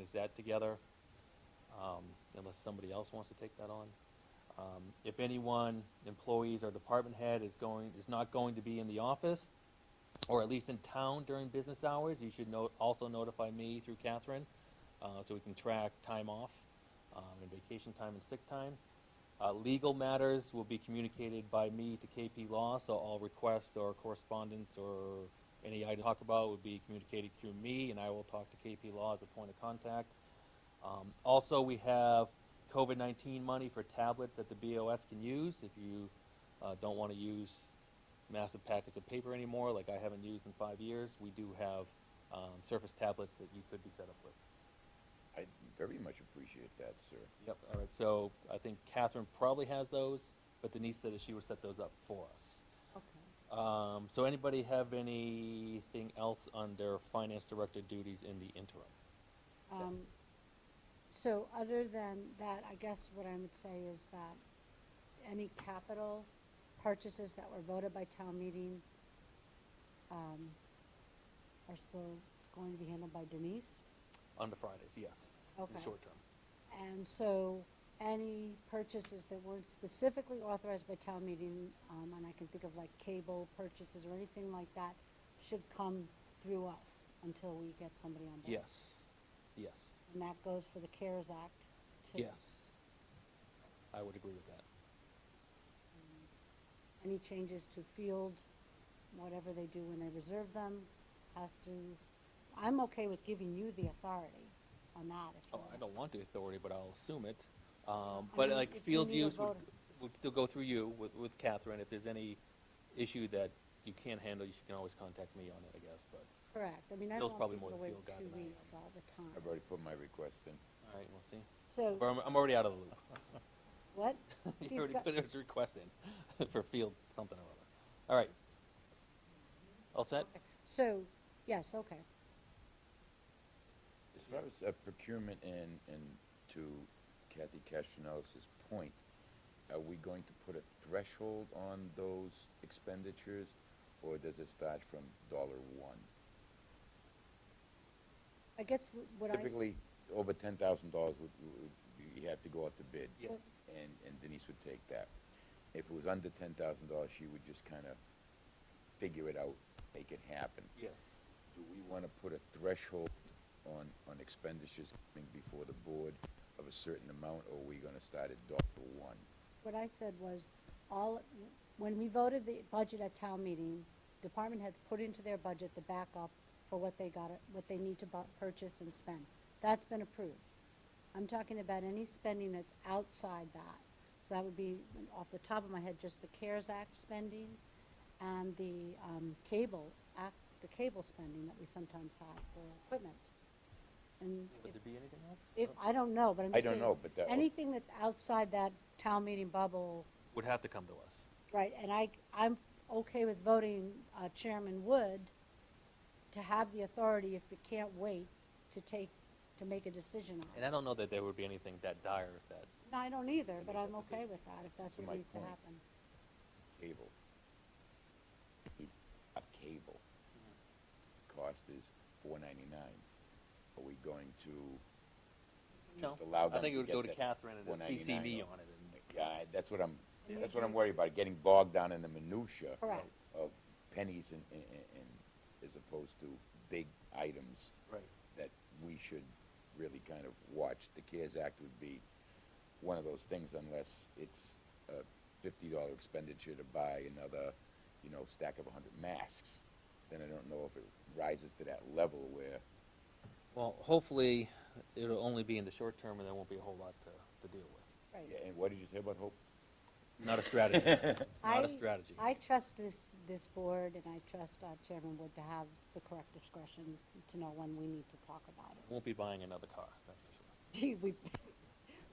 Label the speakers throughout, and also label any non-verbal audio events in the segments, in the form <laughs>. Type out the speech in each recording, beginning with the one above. Speaker 1: piece that together, um, unless somebody else wants to take that on. Um, if anyone, employees or department head is going, is not going to be in the office, or at least in town during business hours, you should note, also notify me through Catherine, uh, so we can track time off, um, and vacation time and sick time. Uh, legal matters will be communicated by me to KP Law, so all requests or correspondence or any I talk about would be communicated through me, and I will talk to KP Law as a point of contact. Um, also, we have COVID-19 money for tablets that the BOS can use if you uh, don't want to use massive packets of paper anymore, like I haven't used in five years. We do have um, Surface tablets that you could be set up with.
Speaker 2: I very much appreciate that, sir.
Speaker 3: Mm-hmm.
Speaker 1: Yep, all right, so I think Catherine probably has those, but Denise said that she would set those up for us.
Speaker 3: Okay.
Speaker 1: Um, so anybody have anything else on their finance director duties in the interim?
Speaker 3: Um, so other than that, I guess what I would say is that any capital purchases that were voted by town meeting, um, are still going to be handled by Denise.
Speaker 1: On the Fridays, yes, in the
Speaker 3: Okay.
Speaker 1: short term.
Speaker 3: And so any purchases that weren't specifically authorized by town meeting, um, and I can think of like cable purchases or anything like that, should come through us until we get somebody on board.
Speaker 1: Yes, yes,
Speaker 3: And that goes for the CARES Act too.
Speaker 1: yes. I would agree with that.
Speaker 3: Any changes to field, whatever they do when they reserve them, has to, I'm okay with giving you the authority on that if
Speaker 1: Oh,
Speaker 3: you want.
Speaker 1: I don't want the authority, but I'll assume it. Um,
Speaker 3: I
Speaker 1: but
Speaker 3: mean,
Speaker 1: like
Speaker 3: if we
Speaker 1: field
Speaker 3: need a
Speaker 1: use would,
Speaker 3: voter.
Speaker 1: would still go through you with, with Catherine. If there's any issue that you can't handle, you can always contact me on it, I guess, but,
Speaker 3: Correct, I mean, I
Speaker 1: Bill's
Speaker 3: don't want
Speaker 1: probably more
Speaker 3: people to
Speaker 1: the
Speaker 3: wait
Speaker 1: field guy
Speaker 3: two
Speaker 1: than I am.
Speaker 3: weeks all the
Speaker 2: I've
Speaker 3: time.
Speaker 2: already put my request in.
Speaker 1: all right, we'll see. But
Speaker 3: So,
Speaker 1: I'm, I'm already out of the loop. <laughs>
Speaker 3: what?
Speaker 1: He
Speaker 3: He's
Speaker 1: already
Speaker 3: got-
Speaker 1: put his request in <laughs> for field something or other. All right. All set?
Speaker 3: okay. So, yes, okay,
Speaker 2: As far as uh, procurement and, and to Kathy Castronellis's point, are we going to put a threshold on those expenditures, or does it start from dollar one?
Speaker 3: I guess w- what I. s-
Speaker 2: Typically, over ten thousand dollars would, would- you have to go out to bid.
Speaker 1: Yes.
Speaker 2: And, and Denise would take that. If it was under ten thousand dollars, she would just kind of figure it out, make it happen.
Speaker 1: Yes.
Speaker 2: Do we want to put a threshold on, on expenditures coming before the board of a certain amount, or are we gonna start at dollar one?
Speaker 3: What I said was, all, when we voted the budget at town meeting, department heads put into their budget the backup for what they got, what they need to bu- purchase and spend. That's been approved. I'm talking about any spending that's outside that. So that would be, off the top of my head, just the CARES Act spending and the, um, cable, act, the cable spending that we sometimes have for equipment. And
Speaker 1: Would
Speaker 3: if
Speaker 1: there be anything else?
Speaker 3: if,
Speaker 1: No?
Speaker 3: I don't know, but I'm
Speaker 2: I
Speaker 3: just
Speaker 2: don't
Speaker 3: saying.
Speaker 2: know, but that would-
Speaker 3: Anything that's outside that town meeting bubble,
Speaker 1: Would have to come to us.
Speaker 3: right, and I, I'm okay with voting uh, Chairman Wood to have the authority if you can't wait to take, to make a decision on
Speaker 1: And
Speaker 3: it.
Speaker 1: I don't know that there would be anything that dire if that,
Speaker 3: No, I don't either,
Speaker 1: To
Speaker 3: but
Speaker 1: make
Speaker 3: I'm
Speaker 1: that
Speaker 3: okay
Speaker 1: decision.
Speaker 3: with that, if that's
Speaker 2: To
Speaker 3: what
Speaker 2: my
Speaker 3: needs to
Speaker 2: point.
Speaker 3: happen.
Speaker 2: Cable. It's a cable. Cost is four ninety-nine. Are we going to
Speaker 1: no.
Speaker 2: just allow them to get that?
Speaker 1: I think it would go to Catherine and then CC
Speaker 2: $1.99
Speaker 1: me
Speaker 2: or-
Speaker 1: on it and
Speaker 2: Yeah, I- that's what I'm,
Speaker 3: Yeah.
Speaker 2: that's what I'm worried about, getting bogged down in the minutia
Speaker 3: Correct.
Speaker 2: of pennies and, and, and- and, as opposed to big items
Speaker 1: Right.
Speaker 2: that we should really kind of watch. The CARES Act would be one of those things unless it's a fifty dollar expenditure to buy another, you know, stack of hundred masks. Then I don't know if it rises to that level where,
Speaker 1: Well, hopefully, it'll only be in the short term, and there won't be a whole lot to, to deal with.
Speaker 3: Right.
Speaker 2: Oh, yeah, and what did you say about hope?
Speaker 1: It's not a
Speaker 2: <laughs>
Speaker 1: strategy. It's not
Speaker 3: I-
Speaker 1: a strategy.
Speaker 3: I trust this, this board, and I trust uh, Chairman Wood to have the correct discretion to know when we need to talk about it. <laughs>
Speaker 1: Won't be buying another car, that's for sure.
Speaker 3: Gee, we, <laughs>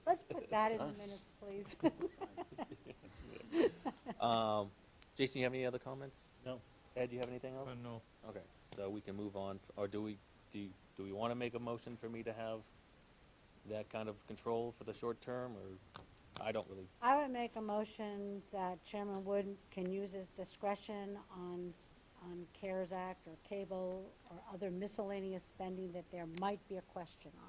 Speaker 3: let's put that in the minutes, please.
Speaker 1: Um, Jason, you have any other comments?
Speaker 4: No.
Speaker 1: Ed, you have anything else?
Speaker 4: Uh, no.
Speaker 1: Okay, so we can move on, f- or do we, do, you- do we want to make a motion for me to have that kind of control for the short term, or, I don't really,
Speaker 3: I would make a motion that Chairman Wood can use his discretion on, s- on CARES Act or cable or other miscellaneous spending that there might be a question on.